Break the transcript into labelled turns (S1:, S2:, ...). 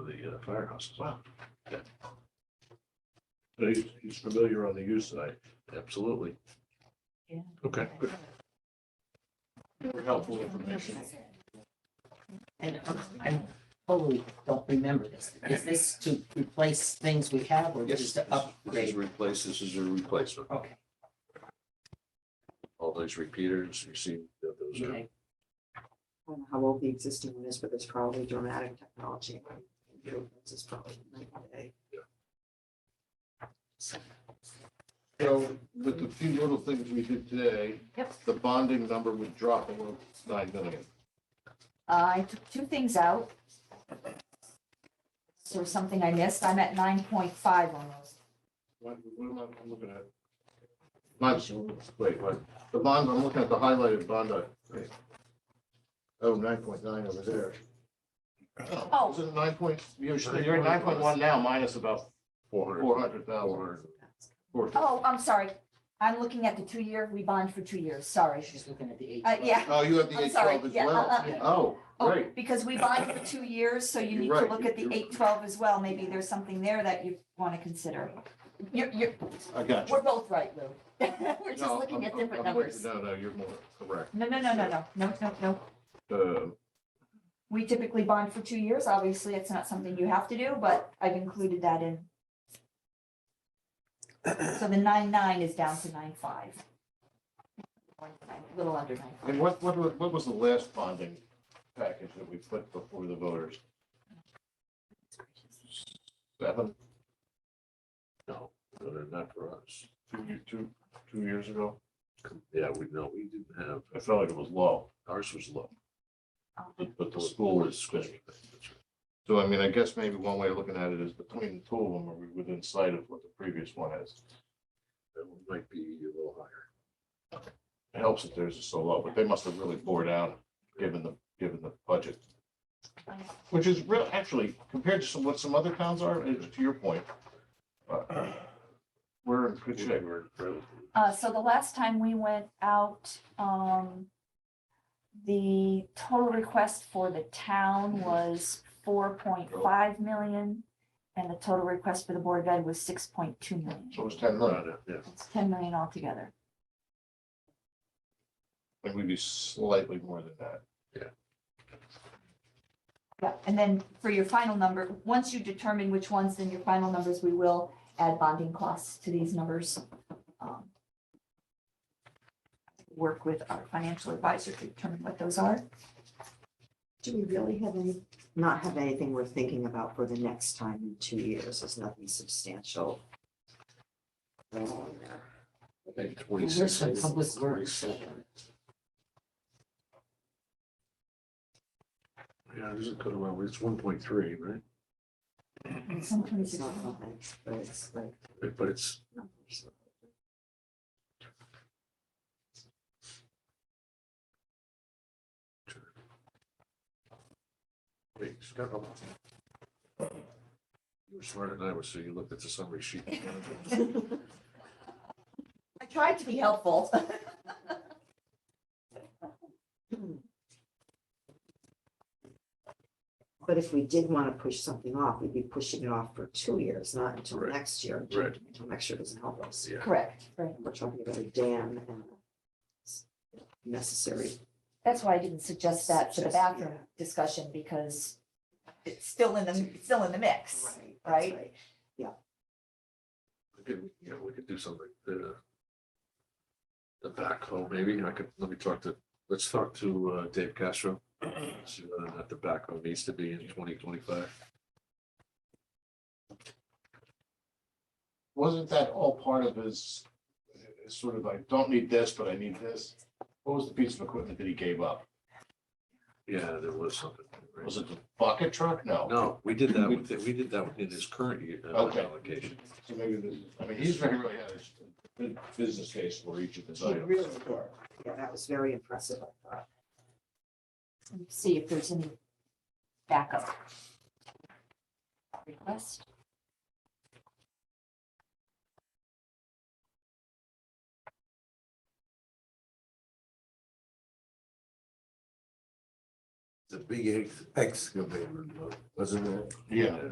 S1: uh,
S2: the firehouse as well. But he's, he's familiar on the use side.
S1: Absolutely.
S2: Okay. good.
S1: For helpful information.
S3: And um, I totally don't remember this. Is this to replace things we have or
S1: Yes,
S3: just to
S1: This is
S3: upgrade?
S1: replace, this is a replacement.
S3: Okay,
S1: All those repeaters, you see, that those are,
S3: okay.
S4: I don't know how old the existing one is, but it's probably dramatic technology. This is probably night and day.
S5: So with the few little things we did today. The bonding number would drop below nine million.
S6: Uh, I took two things out. So something I missed, I'm at nine point five on those.
S5: What, what am I I'm looking at? Mine's, wait, what? The bond, I'm looking at the highlighted bond. uh, wait. Oh, nine point nine over there.
S6: Oh.
S5: Is it nine point, you're,
S2: I think
S5: you're at
S2: we're-
S5: nine point one now, minus about
S2: Four hundred.
S5: four hundred thousand.
S6: Oh, I'm sorry, I'm looking at the two-year, we bond for two years, sorry.
S3: She's looking at the eight.
S6: Uh, yeah,
S5: Oh, you have the
S6: I'm
S5: eight
S6: sorry,
S5: twelve as
S6: yeah, uh,
S5: well. Oh,
S6: oh,
S5: great.
S6: because we bond for two years, so you
S5: You're
S6: need to
S5: right,
S6: look at the
S5: you're-
S6: eight twelve as well, maybe there's something there that you want to consider. You're, you're,
S5: I got you.
S6: we're both right, Lou. We're just
S5: No,
S6: looking
S5: I'm-
S6: at
S5: I'm-
S6: different
S5: I'm
S6: numbers.
S5: with you. No, no, you're more correct.
S6: No, no, no, no, no, no, no, no.
S5: Uh,
S6: We typically bond for two years, obviously, it's not something you have to do, but I've included that in. So the nine nine is down to nine five. Little under nine.
S5: And what, what, wa- what was the last bonding package that we put before the voters? Seven,
S1: no, no, they're not for us.
S5: two, ye- two, two years ago?
S1: Yeah, we know, we didn't have,
S5: I felt like it was low,
S1: ours was low.
S5: but but the school is squishy. So I mean, I guess maybe one way of looking at it is between the two of them, are we within sight of what the previous one is?
S1: That one might be a little higher.
S5: It helps that theirs is so low, but they must have really bored out, given the, given the budget. Which is real, actually, compared to some, what some other towns are, uh, to your point. uh, We're in good shape.
S1: We're relatively-
S6: Uh, so the last time we went out, um, the total request for the town was four point five million. And the total request for the Board of Ed was six point two million.
S5: So it's ten million.
S1: Right, yeah.
S6: It's ten million altogether.
S5: And we'd be slightly more than that.
S6: Yeah, and then for your final number, once you determine which ones, then your final numbers, we will add bonding costs to these numbers. Um, Work with our financial advisor to determine what those are.
S4: Do we really have any, not have anything we're thinking about for the next time in two years? There's nothing substantial.
S1: I think
S3: Where's
S1: twenty-six.
S3: the public works?
S1: Yeah, there's a good amount, it's one point three, right?
S6: Sometimes
S4: It's
S6: it's-
S4: not nothing, but it's like
S1: But- But it's,
S4: numbers.
S1: wait, it's got a lot. You were smarter than I was, so you looked at the summary sheet.
S6: I tried to be helpful.
S4: But if we did want to push something off, we'd be pushing it off for two years, not until
S1: Right.
S4: next year.
S1: Right.
S4: Until next year doesn't help us.
S1: Yeah.
S6: Correct, right.
S4: We're talking about a dam and it's necessary.
S6: That's why I didn't suggest that for the
S4: Suggest,
S6: bathroom
S4: yeah.
S6: discussion because it's still in the, it's still in the mix.
S4: that's
S6: right?
S1: We could, you know, we could do something, the. The backhoe, maybe, I could, let me talk to, let's talk to uh, Dave Castro. See whether or not the backhoe needs to be in twenty twenty-five.
S5: Wasn't that all part of his, his sort of like, don't need this, but I need this? What was the piece of equipment that he gave up?
S1: Yeah, there was something. right?
S5: Was it the bucket truck? No.
S1: No, we did that with, we did that within his current year, uh,
S5: Okay.
S1: allocation.
S5: So maybe this, I mean, he's very, really had a good business case for each of his
S4: They
S5: items.
S4: really were. Yeah, that was very impressive, I thought.
S6: and See if there's any backup. Request.
S1: The big ex- excavator, wasn't it?
S5: Yeah.